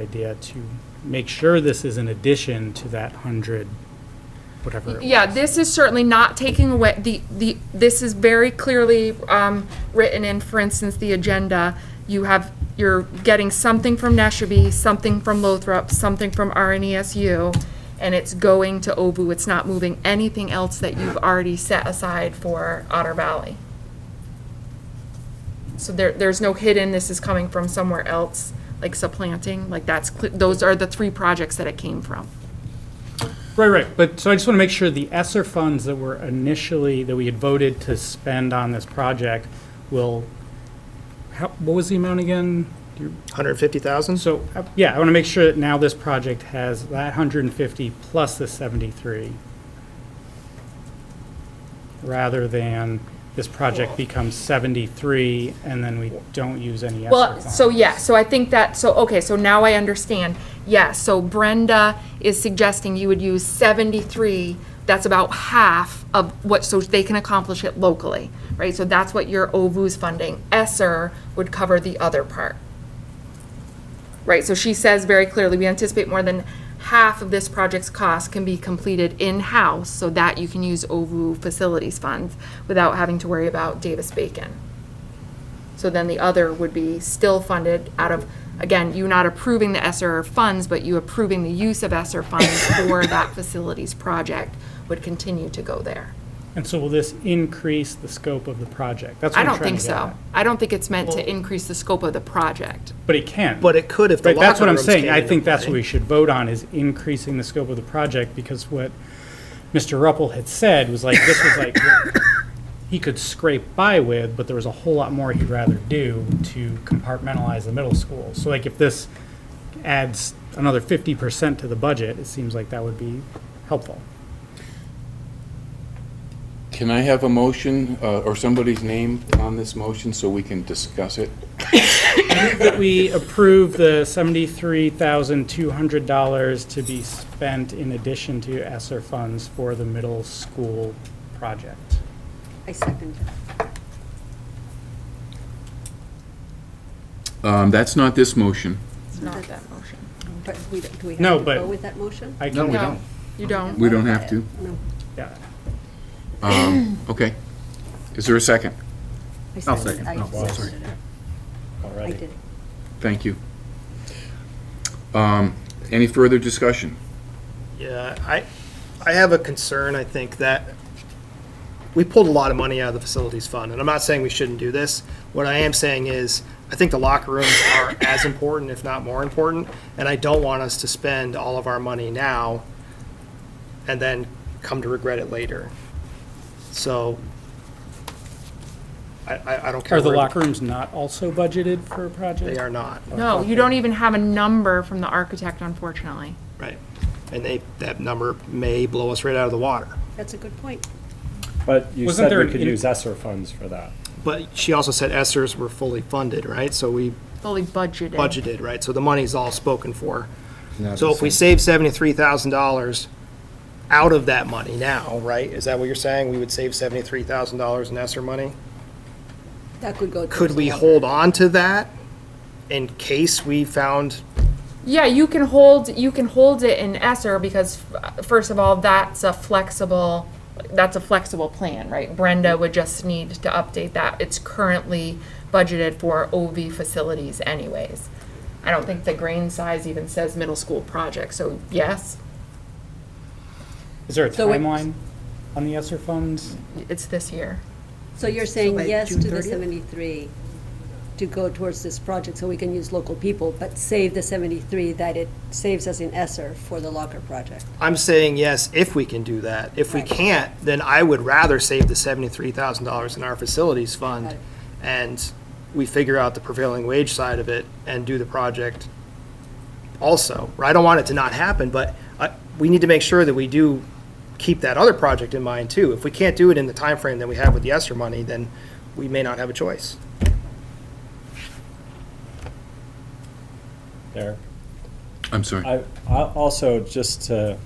idea to make sure this is an addition to that hundred, whatever. it Yeah, this is certainly not taking away, the, the, this is very clearly um, written in, for instance, the agenda. You have, you're getting something from Neshabe, something from Lothrop, something from RNESU, and it's going to OVU. It's not moving anything else that you've already set aside for Otter Valley. So there, there's no hidden, this is coming from somewhere else, like supplanting, like that's, cle- those are the three projects that it came from. Right, right, but, so I just want to make sure the ESSER funds that were initially, that we had voted to spend on this project will, how, what was the amount again? Do you- 150,000? So, uh, yeah, I want to make sure that now this project has that hundred and fifty plus the seventy-three, rather than this project becomes seventy-three and then we don't use any ESSER Well, funds. so yeah, so I think that, so, okay, so now I understand. Yeah, so Brenda is suggesting you would use 73, that's about half of what, so they can accomplish it locally, right? So that's what your OVU's funding. ESSER would cover the other part. Right, so she says very clearly, we anticipate more than half of this project's cost can be completed in-house so that you can use OVU facilities funds without having to worry about Davis-Bacon. So then the other would be still funded out of, again, you not approving the ESER funds, but you approving the use of ESER funds for that facilities project would continue to go there. And so will this increase the scope of the project? That's what I I'm don't trying think to get so. at. I don't think it's meant to increase the scope of the project. But it can. But it could if the Right, that's locker what I'm rooms saying. came I into think that's what play. we should vote on, is increasing the scope of the project, because what Mr. Ruppel had said was like, this was like, what he could scrape by with, but there was a whole lot more he'd rather do to compartmentalize the middle school. So like, if this adds another fifty percent to the budget, it seems like that would be helpful. Can I have a motion uh, or somebody's name on this motion so we can discuss it? that we approve the seventy-three thousand two hundred dollars to be spent in addition to ESSER funds for the middle school project. I second it. Um, That's not this motion. It's not that motion. But we, don't- do we No, have to but- go with that motion? I No, can, we No, don't. You don't? We don't have to. Um, No. yeah. Okay. Is there a second? I I'll seconded- second. I No, I'll seconded it. I did. Thank you. Um, Any further discussion? Yeah, I, I have a concern, I think, that we pulled a lot of money out of the facilities fund, and I'm not saying we shouldn't do this. What I am saying is, I think the locker rooms are as important, if not more important, and I don't want us to spend all of our money now and then come to regret it later. So I, I I don't care. Are the where- locker rooms not also budgeted for a project? They are not. No, you don't even have a number from the architect, unfortunately. Right. And they, that number may blow us right out of the water. That's a good point. But you Wasn't said there we an could in- use ESSER funds for that. But she also said ESSERs were fully funded, right? So we Fully budgeted. budgeted, right? So the money's all spoken for. So if we save seventy-three thousand dollars out of that money now, right? Is that what you're saying? We would save seventy-three thousand dollars in ESSER money? That could go. Could towards we the other. hold on to that in case we found, Yeah, you can hold, you can hold it in ESER because uh, first of all, that's a flexible, that's a flexible plan, right? Brenda would just need to update that. It's currently budgeted for OV facilities anyways. I don't think the grain size even says middle school project, so yes, Is there a So it- timeline on the ESSER funds? it's this year. So you're saying yes to the 73 to go towards this project so we can use local people, but save the 73 that it saves us in ESSER for the locker project? I'm saying yes, if we can do that. If we Right. can't, then I would rather save the seventy-three thousand dollars in our facilities Got fund it. and we figure out the prevailing wage side of it and do the project also. I don't want it to not happen, but I, we need to make sure that we do keep that other project in mind too. If we can't do it in the time frame that we have with the ESSER money, then we may not have a choice. There. I'm sorry. I, I also, just to,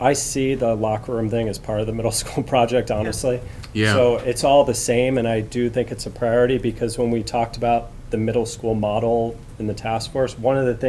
I see the locker room thing as part of the middle school project, honestly. Yeah. So it's all the same, and I do think it's a priority, because when we talked about the middle school model in the task force, one of the things